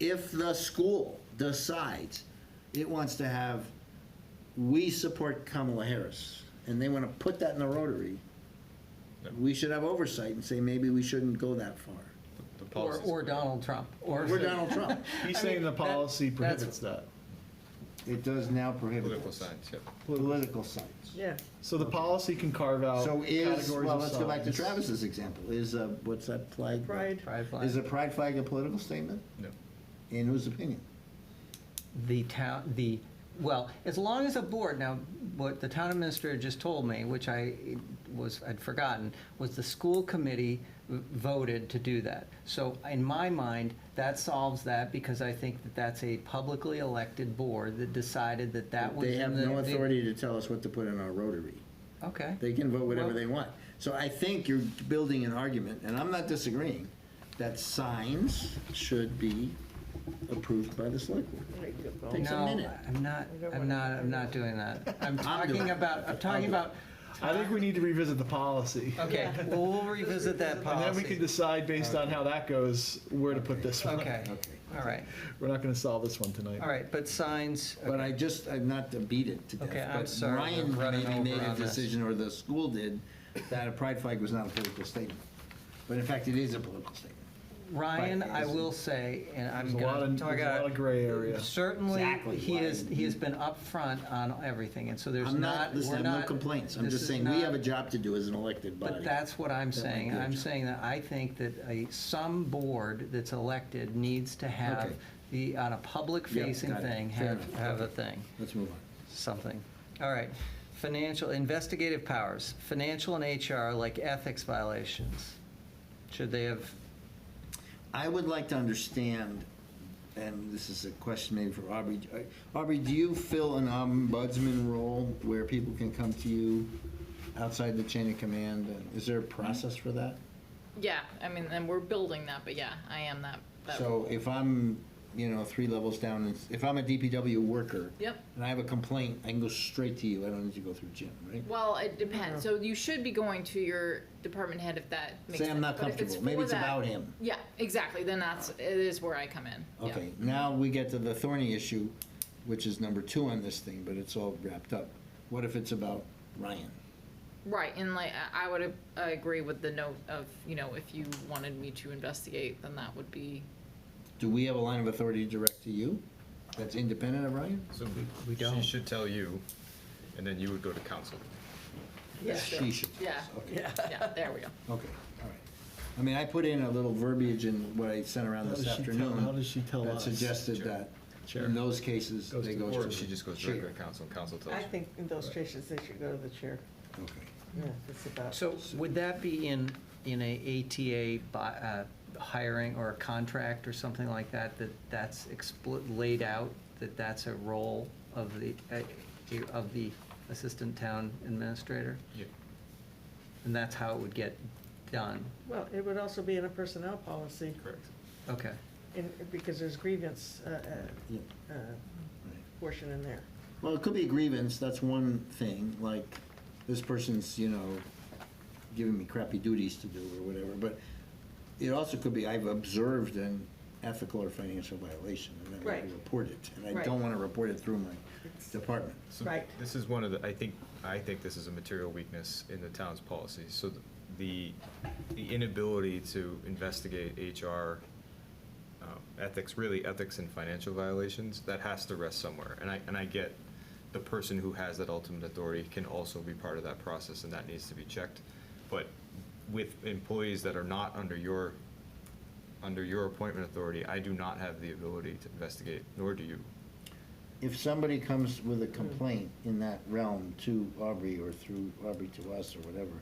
if the school decides it wants to have, we support Kamala Harris, and they want to put that in the Rotary, we should have oversight and say, maybe we shouldn't go that far. The Or, policies. or Donald Trump, or. We're Donald Trump. He's I saying mean, the that- policy that's- prohibits that. It does now prohibit. Political this. science, yep. Political science. Yeah. So the policy can carve out So categories is, of well, let's go back to signs. Travis's example. Is, uh, what's that flag? Pride. Pride flag. Is a pride flag a political statement? No. In whose opinion? the town, the, well, as long as a board, now, what the town administrator just told me, which I was, I'd forgotten, was the school committee v- voted to do that. So in my mind, that solves that because I think that that's a publicly elected board that decided that that was. They in have the- no the- authority to tell us what to put in our Rotary. Okay. They can vote whatever Well- they want. So I think you're building an argument, and I'm not disagreeing, that signs should be approved by the select board. Takes a minute. No, I'm not, don't I'm wanna- not, I'm not doing that. I'm doing talking it. about, I'm talking about, I think we need to revisit the policy. okay, well, we'll revisit that And then we can policy. decide based on how that goes, where to put this one. Okay, all right, We're not gonna solve this one tonight. all right, but signs, uh, But I just, I'm not to beat it to death. Okay, I'm but sorry, I'm Ryan running maybe made over a on this. decision, or the school did, that a pride flag was not a political statement. But in fact, it is a political statement. Ryan, Right, I isn't- will say, and I'm There's a lot gonna of, talk there's a lot of about, gray area. certainly, Exactly he why. is, he has been upfront on everything, and so there's I'm not, not, we're listen, I have no not. complaints. I'm this just is saying, we not- have a job to do as an elected body. But that's what I'm That might saying. be a I'm job. saying that I think that a, some board that's elected needs to have Okay. the, on a public-facing got it. thing, Fair have, enough. have a thing. Let's move on. something. All right, financial, investigative powers, financial and HR, like ethics violations. Should they have, I would like to understand, and this is a question maybe for Aubrey. Aubrey, do you fill an ombudsman role where people can come to you outside the chain of command? And Is there a process for that? Yeah, I mean, and we're building that, but yeah, I am that. that So if I'm, you know, three levels down, and s- if I'm a DPW worker. Yep. And I have a complaint, I can go straight to you. I don't need to go through Jim, right? Well, it depends. So you should be going to your department head if that makes Say sense. I'm not But if comfortable. Maybe for it's that- about him. Yeah, exactly. Then that's it is where I come in. Yeah. Okay, now we get to the thorny issue, which is number two on this thing, but it's all wrapped up. What if it's about Ryan? Right, and like I- I would ag- I agree with the note of you know if you wanted me to investigate, then that would be Do we have a line of authority direct to you that's independent of Ryan? So We she don't. should tell you, and then you would go to council. Yeah. She should. yeah Okay, okay, yeah. There we go. all right. I mean, I put in a little verbiage in what I sent around How this does she tell- afternoon. how does she tell That us? suggested Chair. that Chair. in those cases, Goes they to- go to. Or the she just goes chair. directly to council, and council tells I you. think in those cases, they should go to the chair. Okay. Yeah, it's about. so would that be in, in a ATA by, uh, hiring or a contract or something like that, that that's expli laid out, that that's a role of the, uh, of the assistant town administrator? Yeah. And that's how it would get done? Well, it would also be in a personnel policy, Correct. Okay, in, because there's grievance, uh, Yeah, uh, uh, right. portion in there. Well, it could be a grievance, that's one thing, like, this person's, you know, giving me crappy duties to do or whatever, but it also could be, I've observed an ethical or financial violation, and then I Right. report it, and I Right. don't wanna report it through my department. So Right. This is one of the, I think, I think this is a material weakness in the town's policy. So th- the, the inability to investigate HR um, ethics, really ethics and financial violations, that has to rest somewhere. And I, and I get the person who has that ultimate authority can also be part of that process and that needs to be checked. But with employees that are not under your, under your appointment authority, I do not have the ability to investigate, nor do you. If somebody comes with a complaint in that realm to Aubrey or through Aubrey to us or whatever,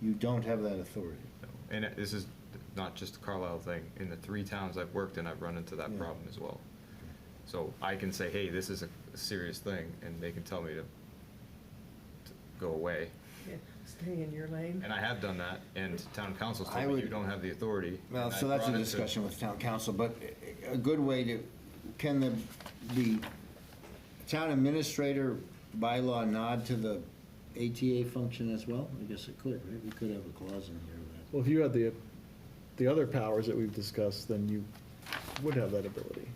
you don't have that authority. And it- this is not just a Carlisle thing. In the three towns I've worked in, I've run into that Yeah. problem as well. So I can say, hey, this is a a serious thing, and they can tell me to to go away. Yeah, Stay in your lane. And I have done that, and town council's I told me, would- you don't have the authority. Well, and I so that's a brought it to- discussion with town council, but a- a good way to, can the, the town administrator bylaw nod to the ATA function as well? I guess it could, right? We could have a clause in here of that. Well, if you had the, the other powers that we've discussed, then you would have that ability.